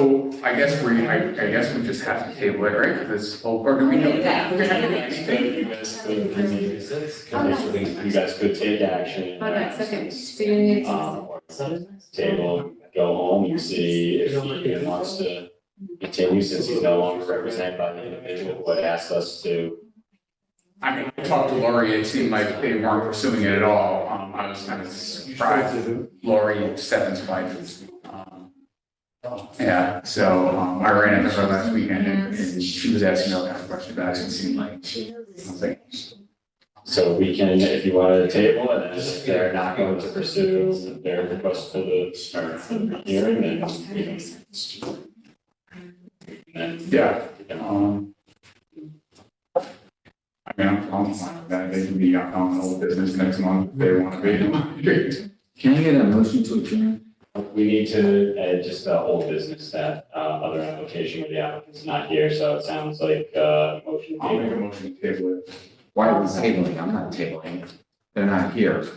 So I guess we, I, I guess we just have to table it, right, because, or do we know? Yeah. We don't have to do anything. Anything you guys could, you guys could take action. Hold on a second, so you need to. Um, table, go home, you see if he wants to continue since he's no longer represented by the individual who had asked us to. I mean, I talked to Lori, it seemed like they weren't pursuing it at all, um, I was kind of surprised, Lori Stebbins' wife is, um. Yeah, so, um, I ran into her last weekend and, and she was asking all kinds of questions about it, it seemed like, I was like, So we can, if you want to table it, and if they're not going to pursue their request for the start hearing, then we can. Then yeah, we can all- um. I mean, I'm, I'm fine with that, they can be on the whole business next month if they want to be. Can I get a motion to adjourn? We need to, uh, just the whole business, that, uh, other application where the applicant's not here, so it sounds like, uh, motion. I'll make a motion to table it. Why are we tabling? I'm not tabling. They're not here.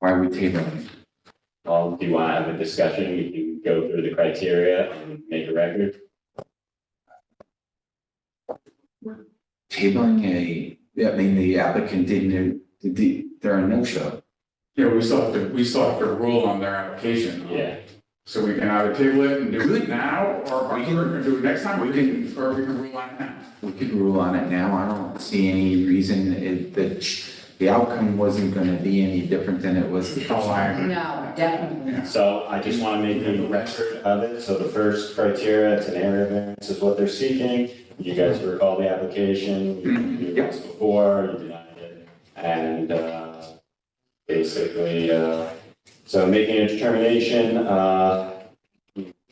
Why are we tabling? Well, Um, do you want to have a discussion? We can go through the criteria and make a record. Tabling a, yeah, I mean, the applicant didn't, did the, they're a no-show. Yeah, we still have to, we still have to rule on their application. Yeah, So we can either table it and do it Good. now, or we We can can- do it next time, we can, or we can rule on it now. We could rule on it now. I don't see any reason it, the, the outcome wasn't gonna be any different than it was. Oh, I agree. No, definitely. so I just want to make a record of it. So the first criteria, it's an area variance is what they're seeking. You guys recall the application, you knew this before, you denied it. And uh, basically, uh, so making a determination, uh,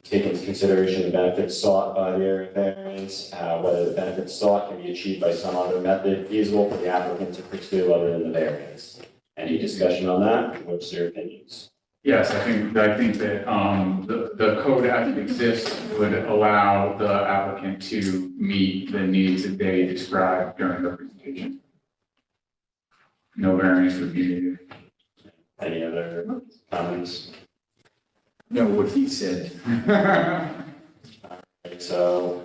take into consideration the benefits sought by the area variance, uh, whether the benefits sought can be achieved by some other method feasible for the applicant to pursue other than the variance. Any discussion on that? What's your opinions? Yes, I think, I think that, um, the, the code as it exists would allow the applicant to meet the needs that they described during the presentation. No variance would be needed. Any other comments? No, what he said. So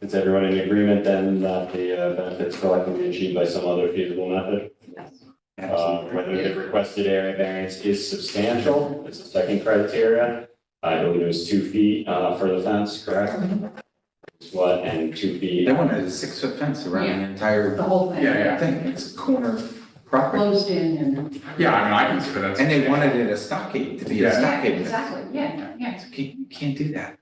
is everyone in agreement then that the uh, benefits sought can be achieved by some other feasible method? Uh, Whether the requested area variance is substantial, is the second criteria. I believe it was two feet uh, for the fence, correct? It's What, and two feet, They wanted a six-foot fence around the entire The whole thing. Yeah, yeah. thing. It's a corner property. Closed in and. Yeah, I mean, I consider that. And they wanted it a stockade, to be a Yeah. stockade. fence. Exactly, yeah, yeah. You can't, you can't do that.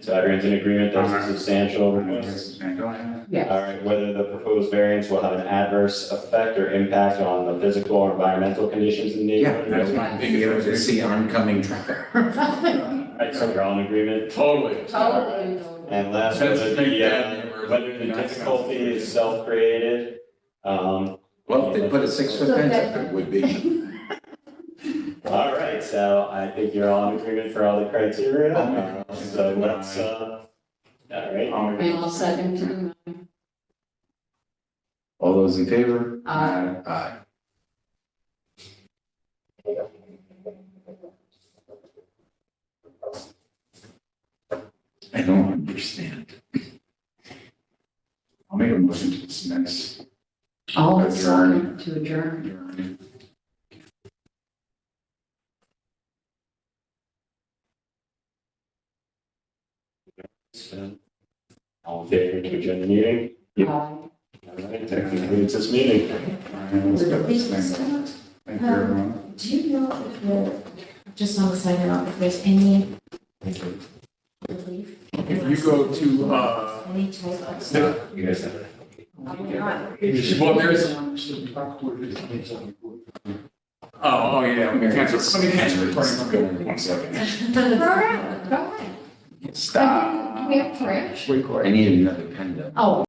so everyone's in agreement that's a substantial request. Go ahead. All right, whether the proposed variance will have an adverse effect or impact on the physical or environmental conditions in the neighborhood. That's my Being able to biggest. see oncoming traffic. All right, so we're all in agreement. Totally. Totally. And last, That's whether big the, bad uh, neighbors. whether the difficulty is self-created. Um, Well, if they put a six-foot fence up, it would be. all right, so I think you're all in agreement for all the criteria. Uh, So let's, uh, all right, Um, And I'll second to them. All those in favor? Uh, Aye. I don't understand. I'll make a motion to dismiss. I'll Adjourn. second to adjourn. so, Um, all in favor to adjourn the meeting? Uh, All right, that concludes this meeting. Ryan, let's get this thing. Thank you, everyone. Do you know if there, just on the sign off, if there's any relief? If you go to, uh, Any type of. You guys have. well, there's. Oh, oh, yeah, let me cancel, let me cancel the recording. One second. Program, Stop. we have prayer? I need another pen though. Oh,